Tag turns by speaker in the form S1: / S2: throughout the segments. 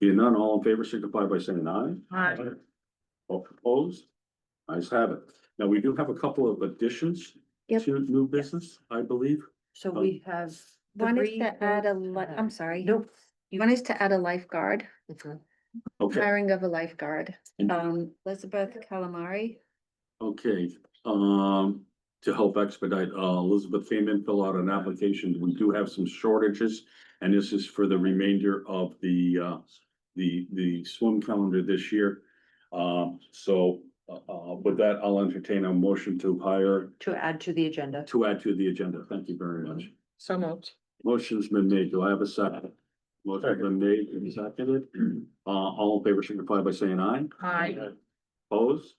S1: Being none, all in favor signify by saying aye.
S2: Aye.
S1: All opposed? Ayes have it. Now, we do have a couple of additions
S3: Yep.
S1: to new business, I believe.
S2: So we have. the
S3: One is
S2: Bree
S3: to add a,
S2: vote,
S3: li-
S2: uh,
S3: I'm sorry.
S2: Nope.
S3: One is to add a lifeguard,
S1: Okay,
S3: hiring of a lifeguard,
S1: And-
S3: um, Elizabeth Calamari.
S1: okay, um, to help expedite, uh, Elizabeth came in, fill out an application. We do have some shortages. And this is for the remainder of the, uh, the, the swim calendar this year. Um, so, uh, uh, with that, I'll entertain a motion to hire,
S2: To add to the agenda.
S1: to add to the agenda. Thank you very much.
S2: So moved.
S1: Motion's been made. Do I have a second? Motion's been made and seconded. Uh, all in favor signify by saying aye.
S2: Aye.
S1: Opposed?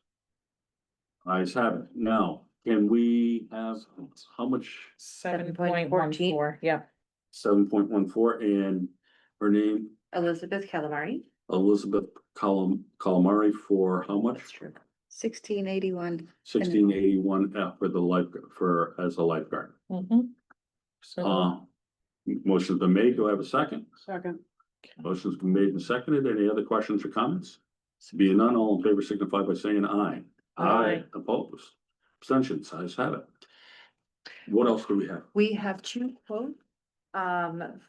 S1: Ayes have it. Now, can we have, how much?
S2: Seven point fourteen. Yeah.
S1: Seven point one four and her name
S2: Elizabeth Calamari.
S1: Elizabeth Colum, Calamari for how much?
S2: true.
S3: Sixteen eighty-one.
S1: Sixteen eighty-one F for the life, for, as a lifeguard.
S2: Mm-hmm.
S1: Uh, motion's been made. Do I have a second?
S2: Second.
S1: Motion's been made and seconded. Any other questions or comments? Being none, all in favor signify by saying aye.
S2: Aye.
S1: Opposed, abstentions, ayes have it. What else do we have?
S2: We have two quotes. Um,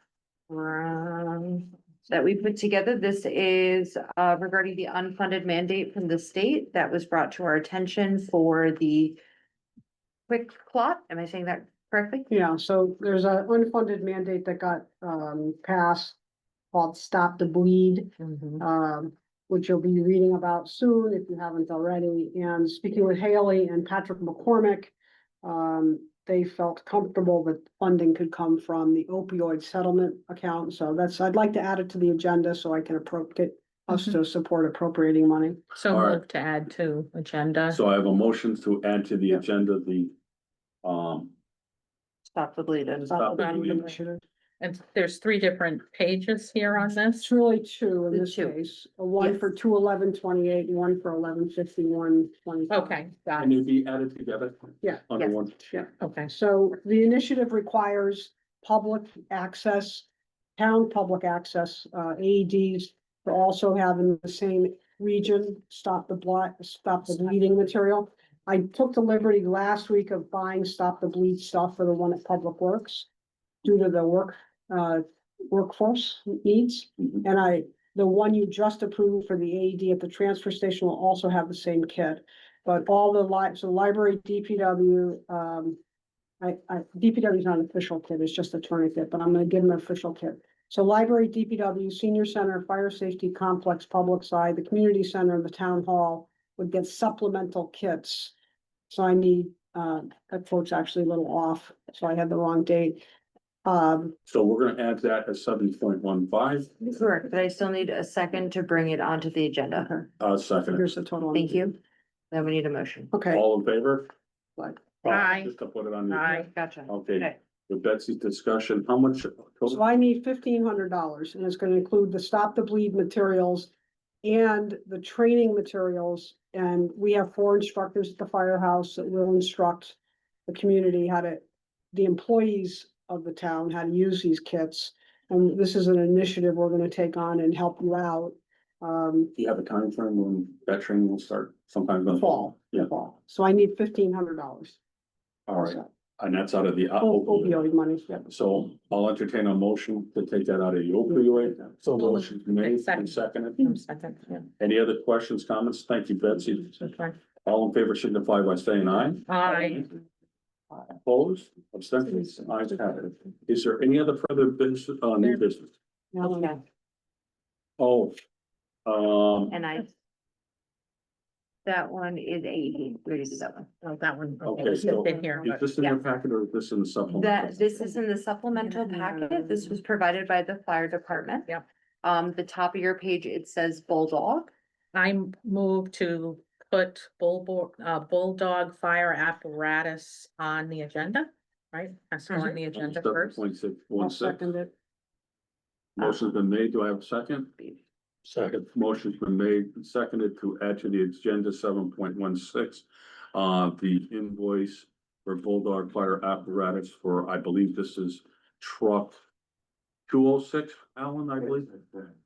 S2: from, that we put together. This is uh regarding the unfunded mandate from the state that was brought to our attention for the. Quick plot, am I saying that correctly?
S4: Yeah, so there's an unfunded mandate that got um passed called Stop the Bleed,
S2: Mm-hmm.
S4: um, which you'll be reading about soon if you haven't already. And speaking with Haley and Patrick McCormick, um, they felt comfortable that funding could come from the opioid settlement account. So that's, I'd like to add it to the agenda so I can appropriate us to support appropriating money.
S5: So
S1: All right.
S5: moved to add to agenda.
S1: So I have a motion to add to the agenda the, um,
S2: Stop the bleeding.
S1: Stop the bleed.
S4: Initiative.
S5: And there's three different pages here on this.
S4: It's really two in
S2: The
S4: this
S2: two.
S4: case, a one
S2: Yes.
S4: for two eleven twenty-eight, and one for eleven fifty-one
S2: Oh.
S4: twenty-five.
S5: Okay, got
S1: and
S5: it.
S1: it'd be added together?
S4: Yeah.
S1: Under
S2: Yes.
S1: one,
S5: Okay.
S4: So the initiative requires public access, town public access, uh, AEDs to also have in the same region, stop the blood, stop the bleeding material. I took the liberty last week of buying stop the bleed stuff for the one at Public Works due to the work, uh, workforce needs.
S1: Mhm.
S4: And I, the one you just approved for the AED at the transfer station will also have the same kit. But all the li- so library, DPW, um, I, I, DPW is not an official kit, it's just a tourniquet, but I'm gonna give them an official kit. So library, DPW, senior center, fire safety complex, public side, the community center, and the town hall would get supplemental kits. So I need, uh, that quote's actually a little off, so I had the wrong date. Um,
S1: so we're gonna add that as seven point one five,
S2: Correct, but I still need a second to bring it onto the agenda.
S4: okay,
S1: uh, second,
S4: here's the total.
S2: Thank you. Then we need a motion.
S4: Okay.
S1: all in favor?
S4: Aye.
S1: Uh, Just to put it on. the-
S5: Aye.
S2: Gotcha.
S1: Okay,
S2: Okay.
S1: with Betsy's discussion, how much?
S4: So I need fifteen hundred dollars and it's gonna include the stop the bleed materials. And the training materials, and we have four instructors at the firehouse that will instruct. The community how to, the employees of the town how to use these kits. And this is an initiative we're gonna take on and help you out. Um,
S1: Do you have a time frame when that training will start sometime? in the
S4: fall,
S1: Yeah,
S4: fall, so I need fifteen hundred dollars.
S1: all right, and that's out of the. uh,
S4: Opioid money, yeah.
S1: So I'll entertain a motion to take that out of the opioid. So motion made and seconded.
S5: Um, Second, yeah.
S1: Any other questions, comments? Thank you, Betsy.
S5: Okay.
S1: All in favor signify by saying aye.
S5: Aye.
S1: Opposed, abstentions, ayes have it. Is there any other further business, uh, new business?
S4: Now I'm-
S1: Oh, um,
S2: And I. That one is eighty thirty-seven.
S5: Oh, that one.
S1: Okay,
S5: it's
S1: so-
S5: Been here.
S1: is this in your packet or is this in the supplement?
S2: That, this is in the supplemental packet. This was provided by the fire department.
S5: Yep.
S2: Um, the top of your page, it says Bulldog.
S5: I move to put bulldog, uh, bulldog fire apparatus on the agenda, right? That's
S2: Mm-hmm.
S5: on the agenda first.
S1: Point six,
S4: I'll
S1: one six.
S4: second it.
S1: Motion's been made. Do I have a second? Second. Motion's been made and seconded to add to the agenda seven point one six. Uh, the invoice for Bulldog Fire Apparatus for, I believe this is truck two oh six, Alan, I believe.